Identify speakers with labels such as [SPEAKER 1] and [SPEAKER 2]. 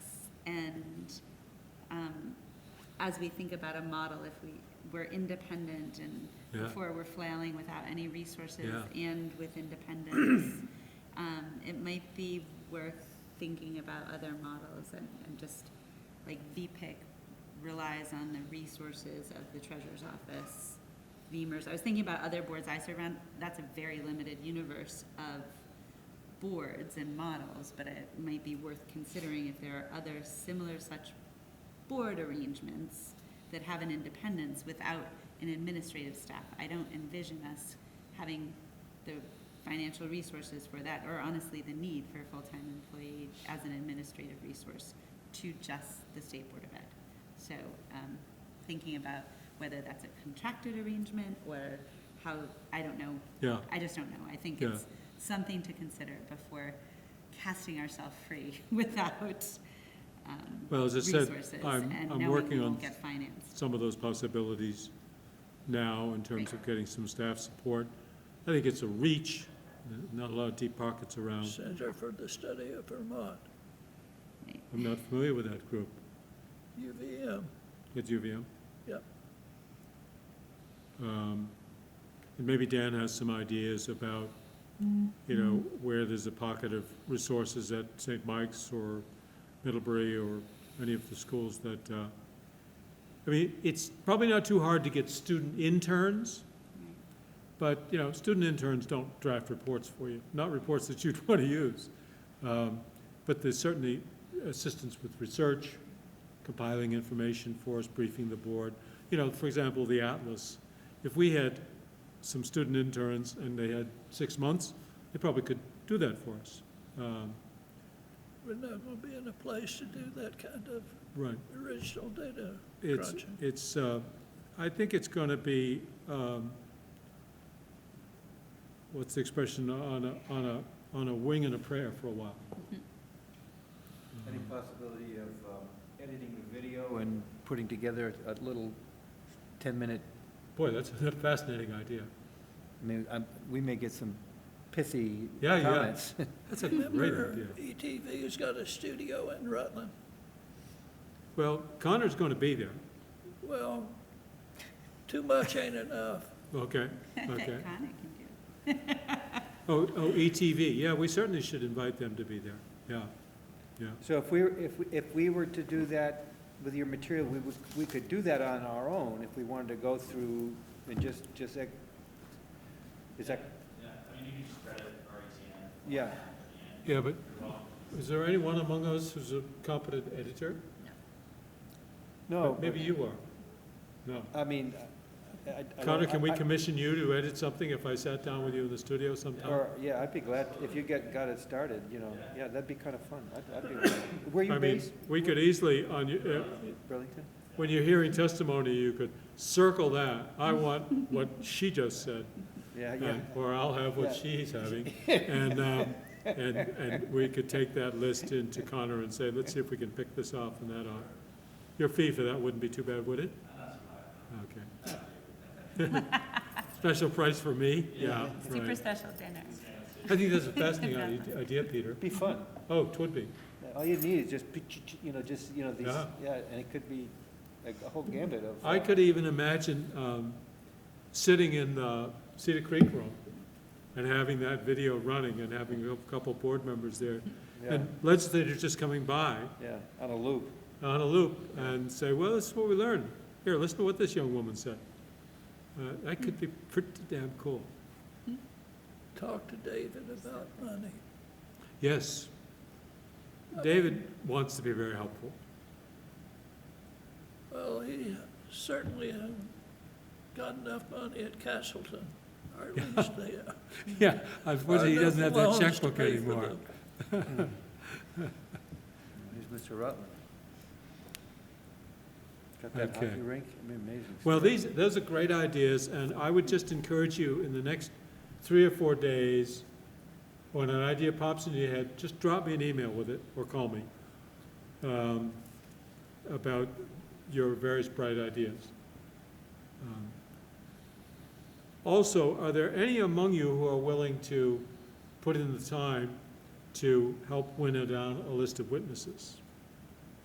[SPEAKER 1] um, as we think about a model, if we, we're independent and
[SPEAKER 2] Yeah.
[SPEAKER 1] before we're flailing without any resources
[SPEAKER 2] Yeah.
[SPEAKER 1] and with independence, um, it might be worth thinking about other models and, and just, like VPIC relies on the resources of the treasurer's office. VEMR's, I was thinking about other boards I serve on, that's a very limited universe of boards and models, but it might be worth considering if there are other similar such board arrangements that have an independence without an administrative staff. I don't envision us having the financial resources for that, or honestly, the need for a full-time employee as an administrative resource to just the State Board of Ed. So, um, thinking about whether that's a contracted arrangement or how, I don't know,
[SPEAKER 2] Yeah,
[SPEAKER 1] I just don't know. I think it's something to consider before casting ourselves free without um,
[SPEAKER 2] well, as I said,
[SPEAKER 1] resources
[SPEAKER 2] I'm,
[SPEAKER 1] and
[SPEAKER 2] I'm
[SPEAKER 1] knowing we
[SPEAKER 2] working on
[SPEAKER 1] won't get financed.
[SPEAKER 2] some of those possibilities now in terms of getting some staff support. I think it's a reach, not a lot of deep pockets around.
[SPEAKER 3] Center for the Study of Vermont,
[SPEAKER 1] Right.
[SPEAKER 2] I'm not familiar with that group
[SPEAKER 3] UVM.
[SPEAKER 2] at UVM.
[SPEAKER 3] Yep.
[SPEAKER 2] Um, And maybe Dan has some ideas about, you know, where there's a pocket of resources at St. Mike's or Middlebury or any of the schools that, uh, I mean, it's probably not too hard to get student interns, but, you know, student interns don't draft reports for you, not reports that you'd want to use. Um, But there's certainly assistance with research, compiling information for us, briefing the board. You know, for example, the Atlas, if we had some student interns and they had six months, they probably could do that for us. Um,
[SPEAKER 3] We're never going to be in a place to do that kind of
[SPEAKER 2] Right.
[SPEAKER 3] original data
[SPEAKER 2] It's,
[SPEAKER 3] crunching.
[SPEAKER 2] it's, uh, I think it's going to be, um, what's the expression, on a, on a, on a wing and a prayer for a while.
[SPEAKER 4] Any possibility of um, editing the video and putting together a little 10-minute,
[SPEAKER 2] Boy, that's a fascinating idea.
[SPEAKER 4] I mean, I'm- um, we may get some pithy
[SPEAKER 2] Yeah, yeah.
[SPEAKER 4] comments.
[SPEAKER 2] That's a great
[SPEAKER 3] Remember, E
[SPEAKER 2] idea.
[SPEAKER 3] ETV's got a studio in Rutland.
[SPEAKER 2] Well, Connor's going to be there,
[SPEAKER 3] Well, too much ain't enough.
[SPEAKER 2] okay,
[SPEAKER 1] That
[SPEAKER 2] okay.
[SPEAKER 1] Conic can do. it.
[SPEAKER 2] Oh, oh, ETV, yeah, we certainly should invite them to be there, yeah, yeah.
[SPEAKER 4] So if we, were- if, we- if we were to do that with your material, we would, we could do that on our own if we wanted to go through and just, just, ex- is that,
[SPEAKER 5] Yeah, I mean, you can just credit E RETN.
[SPEAKER 4] yeah.
[SPEAKER 2] Yeah, but is there anyone among us who's a competent editor?
[SPEAKER 4] No.
[SPEAKER 2] Maybe you are. No.
[SPEAKER 4] I mean, I- I. I don't-
[SPEAKER 2] Connor, can we
[SPEAKER 4] I- I-
[SPEAKER 2] commission you to edit something if I sat down with you in the studio sometime?
[SPEAKER 4] Or, yeah, I'd be glad, if you get, got it started, you know, yeah, that'd be kind of fun. I'd, I'd be, glad. where
[SPEAKER 2] I
[SPEAKER 4] you
[SPEAKER 2] mean,
[SPEAKER 4] based,
[SPEAKER 2] we could easily, on, you- uh,
[SPEAKER 4] Burlington?
[SPEAKER 2] when you're hearing testimony, you could circle that. I want what she just said,
[SPEAKER 4] Yeah, yeah.
[SPEAKER 2] and- or I'll have what she's having. And, uh, and, and we could take that list into Connor and say, let's see if we can pick this off and that off. Your fee for that wouldn't be too bad, would it? Okay. Special price for me? Yeah,
[SPEAKER 1] Super
[SPEAKER 2] right.
[SPEAKER 1] special dinner.
[SPEAKER 2] I think that's a fascinating idea- idea, Peter.
[SPEAKER 4] Be fun.
[SPEAKER 2] Oh, twould be.
[SPEAKER 4] All you need is just, pi- ch- ch- you know, just, you know, these,
[SPEAKER 2] Yeah.
[SPEAKER 4] yeah, and it could be like a whole gambit of.
[SPEAKER 2] I
[SPEAKER 4] uh,
[SPEAKER 2] could even imagine um, sitting in the Cedar Creek room and having that video running and having a couple board members there.
[SPEAKER 4] Yeah,
[SPEAKER 2] And legislators just coming by
[SPEAKER 4] uh, yeah, on a loop.
[SPEAKER 2] on a loop and say, well, this is what we learned. Here, listen to what this young woman said. Uh, That could be pretty damn cool.
[SPEAKER 3] Talk to David about money.
[SPEAKER 2] Yes. David wants to be very helpful.
[SPEAKER 3] Well, he certainly hasn't got enough money at Castleton, or at least they.
[SPEAKER 2] Yeah, unfortunately, he
[SPEAKER 3] enough
[SPEAKER 2] doesn't have that
[SPEAKER 3] loans to
[SPEAKER 2] checkbook
[SPEAKER 3] pay for
[SPEAKER 2] anymore.
[SPEAKER 3] them.
[SPEAKER 4] Here's Mr. Rutland. Got that
[SPEAKER 2] Okay.
[SPEAKER 4] hockey rink, I mean, amazing.
[SPEAKER 2] Well,
[SPEAKER 4] stuff.
[SPEAKER 2] these, those are great ideas, and I would just encourage you, in the next three or four days, when an idea pops into your head, just drop me an email with it, or call me, um, about your various bright ideas. Um, Also, are there any among you who are willing to put in the time to help winnow down a list of witnesses?